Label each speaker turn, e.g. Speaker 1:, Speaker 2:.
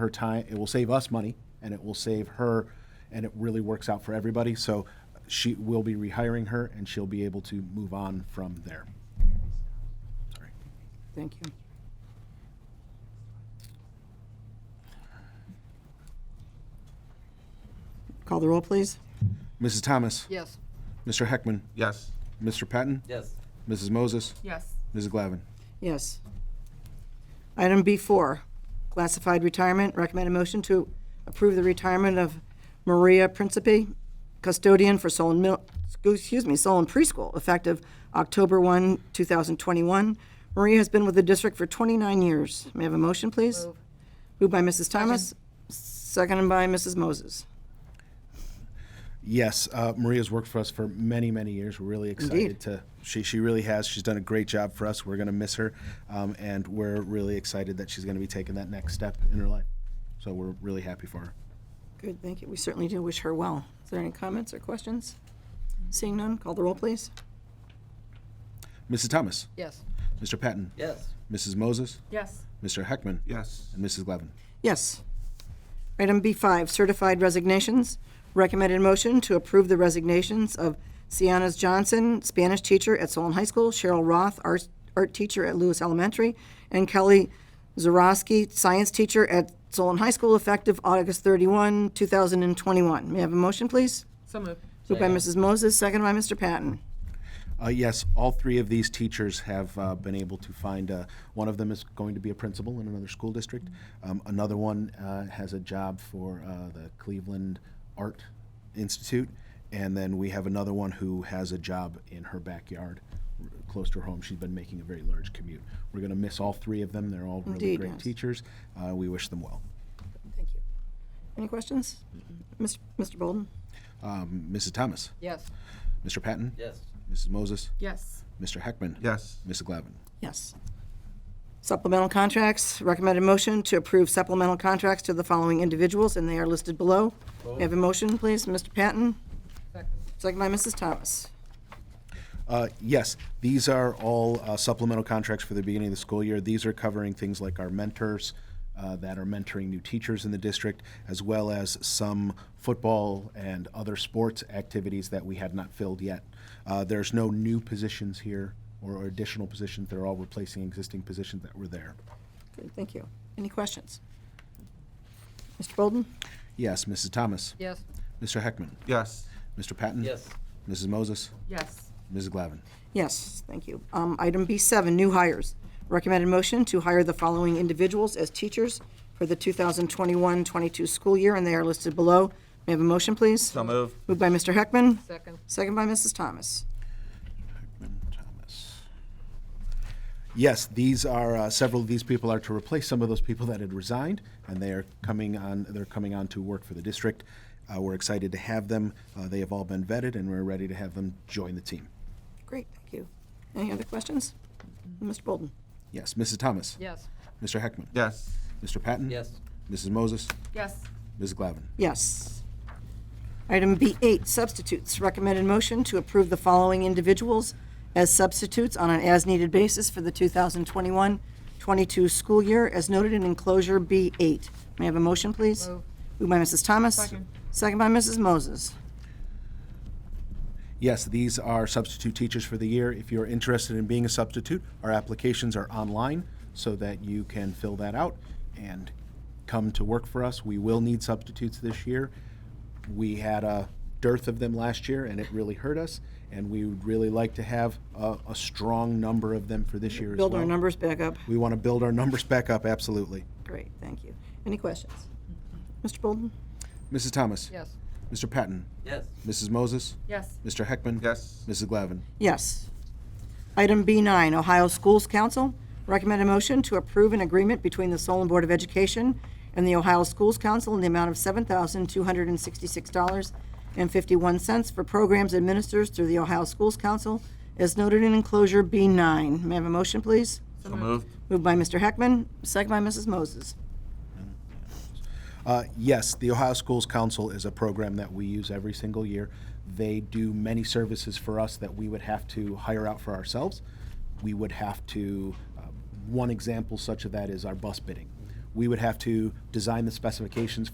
Speaker 1: her time, it will save us money, and it will save her, and it really works out for everybody. So she will be rehiring her, and she'll be able to move on from there. Sorry.
Speaker 2: Thank you. Call the roll, please.
Speaker 1: Mrs. Thomas?
Speaker 2: Yes.
Speaker 1: Mr. Heckman?
Speaker 3: Yes.
Speaker 1: Mr. Patton?
Speaker 3: Yes.
Speaker 1: Mrs. Moses?
Speaker 4: Yes.
Speaker 1: Mrs. Glavin?
Speaker 2: Yes. Item B4, classified retirement. Recommend a motion to approve the retirement of Maria Principi, custodian for Solon Mill, excuse me, Solon Preschool, effective October 1, 2021. Maria has been with the district for 29 years. May I have a motion, please? Moved by Mrs. Thomas, seconded by Mrs. Moses.
Speaker 1: Yes, uh, Maria's worked for us for many, many years. We're really excited
Speaker 2: Indeed.
Speaker 1: to. She she really has. She's done a great job for us. We're going to miss her, um, and we're really excited that she's going to be taking that next step in her life. So we're really happy for her.
Speaker 2: Good, thank you. We certainly do wish her well. Is there any comments or questions? Seeing none, call the roll, please.
Speaker 1: Mrs. Thomas,
Speaker 4: Yes.
Speaker 1: Mr. Patton,
Speaker 3: Yes.
Speaker 1: Mrs. Moses,
Speaker 4: Yes.
Speaker 1: Mr. Heckman,
Speaker 3: Yes.
Speaker 1: and Mrs. Glavin.
Speaker 2: Yes. Item B5, certified resignations. Recommended motion to approve the resignations of Sienna Johnson, Spanish teacher at Solon High School, Cheryl Roth, art art teacher at Lewis Elementary, and Kelly Zarowski, science teacher at Solon High School, effective August 31, 2021. May I have a motion, please?
Speaker 4: So moved.
Speaker 2: Moved by Mrs. Moses, seconded by Mr. Patton.
Speaker 1: Uh, yes, all three of these teachers have uh, been able to find. Uh, one of them is going to be a principal in another school district. Um, another one uh, has a job for uh, the Cleveland Art Institute, and then we have another one who has a job in her backyard, r- close to her home. She's been making a very large commute. We're going to miss all three of them. They're all really
Speaker 2: Indeed,
Speaker 1: great
Speaker 2: yes.
Speaker 1: teachers. Uh, we wish them well.
Speaker 2: Thank you. Any questions? Mis- Mr. Bolden?
Speaker 1: Um, Mrs. Thomas,
Speaker 4: Yes.
Speaker 1: Mr. Patton,
Speaker 3: Yes.
Speaker 1: Mrs. Moses,
Speaker 4: Yes.
Speaker 1: Mr. Heckman,
Speaker 3: Yes.
Speaker 1: Mrs. Glavin.
Speaker 2: Yes. Supplemental contracts, recommended motion to approve supplemental contracts to the following individuals, and they are listed below. May I have a motion, please? Mr. Patton? Second by Mrs. Thomas.
Speaker 1: Uh, Yes, these are all uh, supplemental contracts for the beginning of the school year. These are covering things like our mentors uh, that are mentoring new teachers in the district, as well as some football and other sports activities that we had not filled yet. Uh, There's no new positions here or additional positions. They're all replacing existing positions that were there.
Speaker 2: Good, thank you. Any questions? Mr. Bolden?
Speaker 1: Yes, Mrs. Thomas,
Speaker 4: Yes.
Speaker 1: Mr. Heckman,
Speaker 3: Yes.
Speaker 1: Mr. Patton. Mrs. Moses,
Speaker 4: Yes.
Speaker 1: Mrs. Glavin.
Speaker 2: Yes, thank you. Um, Item B7, new hires. Recommended motion to hire the following individuals as teachers for the 2021-22 school year, and they are listed below. May I have a motion, please?
Speaker 3: So move.
Speaker 2: Moved by Mr. Heckman,
Speaker 4: Second.
Speaker 2: second by Mrs. Thomas.
Speaker 1: Thomas. Yes, these are, uh, several of these people are to replace some of those people that had resigned, and they are coming on, they're coming on to work for the district. Uh, We're excited to have them. Uh, They have all been vetted, and we're ready to have them join the team.
Speaker 2: Great, thank you. Any other questions? Mr. Bolden?
Speaker 1: Yes, Mrs. Thomas?
Speaker 4: Yes.
Speaker 1: Mr. Heckman?
Speaker 3: Yes.
Speaker 1: Mr. Patton? Mrs. Moses?
Speaker 4: Yes.
Speaker 1: Mrs. Glavin?
Speaker 2: Yes. Item B8, substitutes. Recommended motion to approve the following individuals as substitutes on an as-needed basis for the 2021-22 school year, as noted in enclosure B8. May I have a motion, please?
Speaker 4: Move.
Speaker 2: Moved by Mrs. Thomas.
Speaker 4: Second.
Speaker 2: Second by Mrs. Moses.
Speaker 1: Yes, these are substitute teachers for the year. If you're interested in being a substitute, our applications are online so that you can fill that out and come to work for us. We will need substitutes this year. We had a dearth of them last year and it really hurt us, and we would really like to have a, a strong number of them for this year as well.
Speaker 2: Build our numbers back up.
Speaker 1: We want to build our numbers back up, absolutely.
Speaker 2: Great, thank you. Any questions? Mr. Bolden?
Speaker 1: Mrs. Thomas?
Speaker 4: Yes.
Speaker 1: Mr. Patton?
Speaker 3: Yes.
Speaker 1: Mrs. Moses?
Speaker 4: Yes.
Speaker 1: Mr. Heckman?
Speaker 3: Yes.
Speaker 1: Mrs. Glavin?
Speaker 2: Yes. Item B9, Ohio Schools Council. Recommend a motion to approve an agreement between the Solon Board of Education and the Ohio Schools Council in the amount of $7,266.51 for programs administered through the Ohio Schools Council, as noted in enclosure B9. May I have a motion, please?
Speaker 3: So moved.
Speaker 2: Moved by Mr. Heckman, second by Mrs. Moses.
Speaker 1: Uh, Yes, the Ohio Schools Council is a program that we use every single year. They do many services for us that we would have to hire out for um, ourselves. We would have to, uh, one example such of that is our bus bidding. we would have to design the specifications